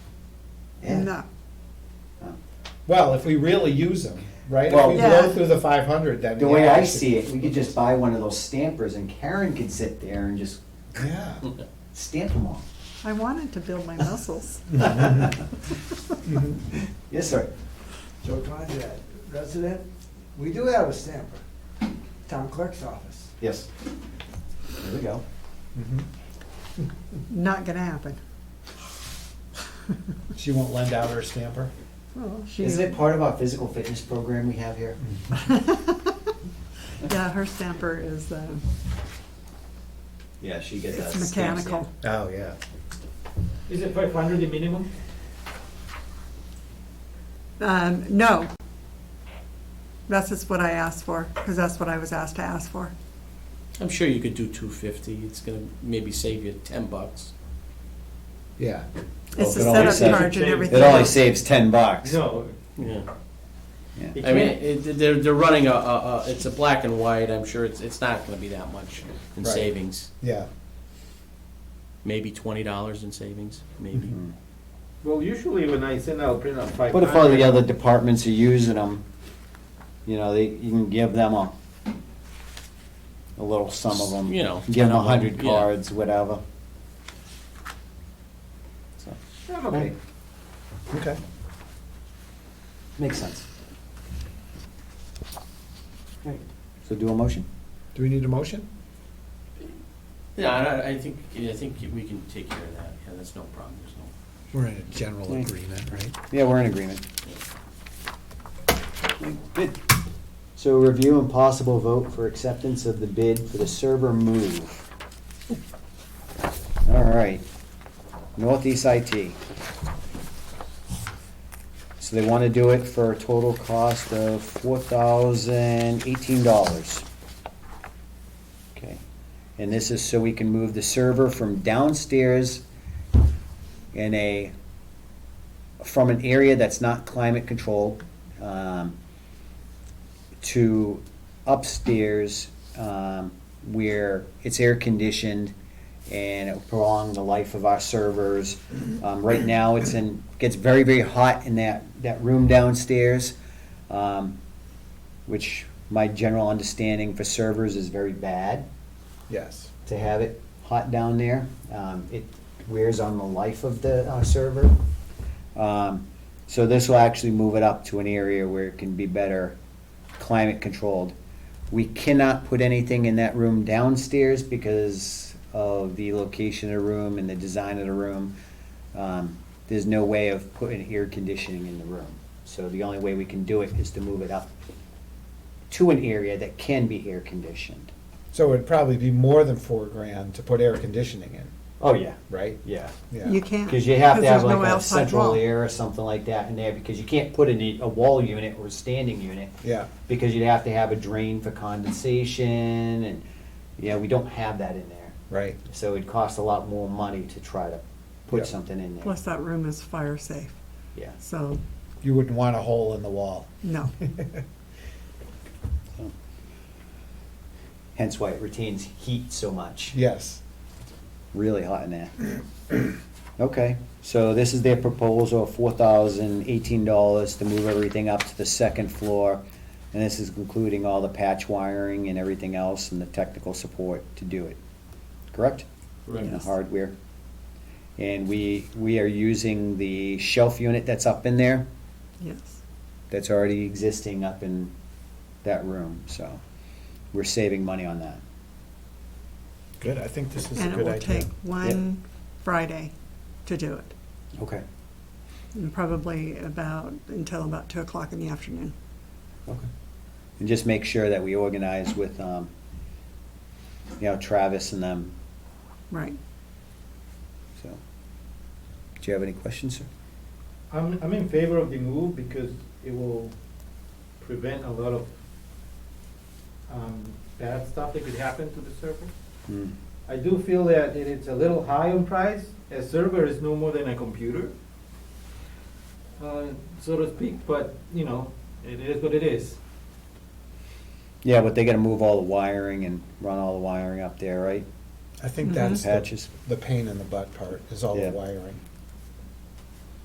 them up. Well, if we really use them, right? If Well- we Yeah. blow through the five hundred, then. The way yeah, I we should- see it, we could just buy one of those stampers and Karen could sit there and just Yeah. stamp them all. I wanted to build my muscles. Mm-hmm. Mhm. Yes, sir. Joe Conrad, resident, we do have a stamper, town clerk's office. Yes. There we go. Mhm. Not gonna happen. She won't lend out her stamper? Well, she's- Isn't it part of our physical fitness program we have here? Yeah, her stamper is, uh, Yeah, she gets it's mechanical. Oh, yeah. Is it five hundred the minimum? Um, no. That's just what I asked for, because that's what I was asked to ask for. I'm sure you could do two fifty, it's gonna maybe save you ten bucks. Yeah. It's the Well, it only setup says- charge and It everything. It only saves ten bucks. No. Yeah. Yeah. It I mean, can't, it, they're, they're running a, a, a, it's a black and white, I'm sure it's, it's not gonna be that much in Right. savings. Yeah. Maybe twenty dollars in savings, maybe. Mhm. well, usually when I send out print out five What hundred. if all the other departments are using them? You know, they, you can give them a, a little sum of them. You know, Give them a 10 of 'em, hundred yeah. cards, whatever. So, I'm okay. Okay. Makes sense. Right. So do a motion. Do we need a motion? Yeah, I, I think, I think we can take care of that, yeah, that's no problem, there's no. We're in a general Yeah. agreement, right? Yeah, we're in agreement. Good. So review and possible vote for acceptance of the bid for the server move. All right, Northeast IT. So they want to do it for a total cost of four thousand eighteen dollars. Okay, and this is so we can move the server from downstairs in a from an area that's not climate controlled um, to upstairs um, where it's air conditioned and it will prolong the life of our servers. Um, right now, it's in gets very very hot in that that room downstairs, um, which my general understanding for servers is very bad Yes. to have it hot down there. Um, it wears on the life of the uh, server. Um, so this will actually move it up to an area where it can be better climate controlled. We cannot put anything in that room downstairs because of the location of the room and the design of the room. Um, there's no way of putting air conditioning in the room. So the only way we can do it is to move it up to an area that can be air conditioned. So it'd probably be more than four grand to put air conditioning in, Oh, yeah. right? Yeah. Yeah. You can't. Because you have to have there's no like a outside central wall. air or something like that in there, because you can't put in a wall unit or a standing unit, Yeah. because you'd have to have a drain for condensation, and, yeah, we don't have that in there. Right. So it'd cost a lot more money to try to Yeah. put something in there. Plus, that room is fire safe, Yeah. so, You wouldn't want a hole in the wall. no. Hence why it retains heat so much. Yes. Really hot in there. Okay, so this is their proposal, four thousand eighteen dollars to move everything up to the second floor. And this is including all the patch wiring and everything else and the technical support to do it, correct? And the hardware. And we, we are using the shelf unit that's up in there, Yes. that's already existing up in that room, so we're saving money on that. Good, I think this is a And it good will idea. take one Friday to do it, Okay. and probably about, until about two o'clock in the afternoon. Okay. And just make sure that we organize with, um, you know, Travis and them, Right. so. Do you have any questions, sir? I'm, I'm in favor of the move because it will prevent a lot of, um, bad stuff that could happen to the server. Hmm. I do feel that it is a little high on price. A server is no more than a computer, uh, so to speak, but, you know, it is what it is. Yeah, but they gotta move all the wiring and run all the wiring up there, right? I think Mhm. that's the Patches. the pain in the butt part, is all the Yeah. wiring.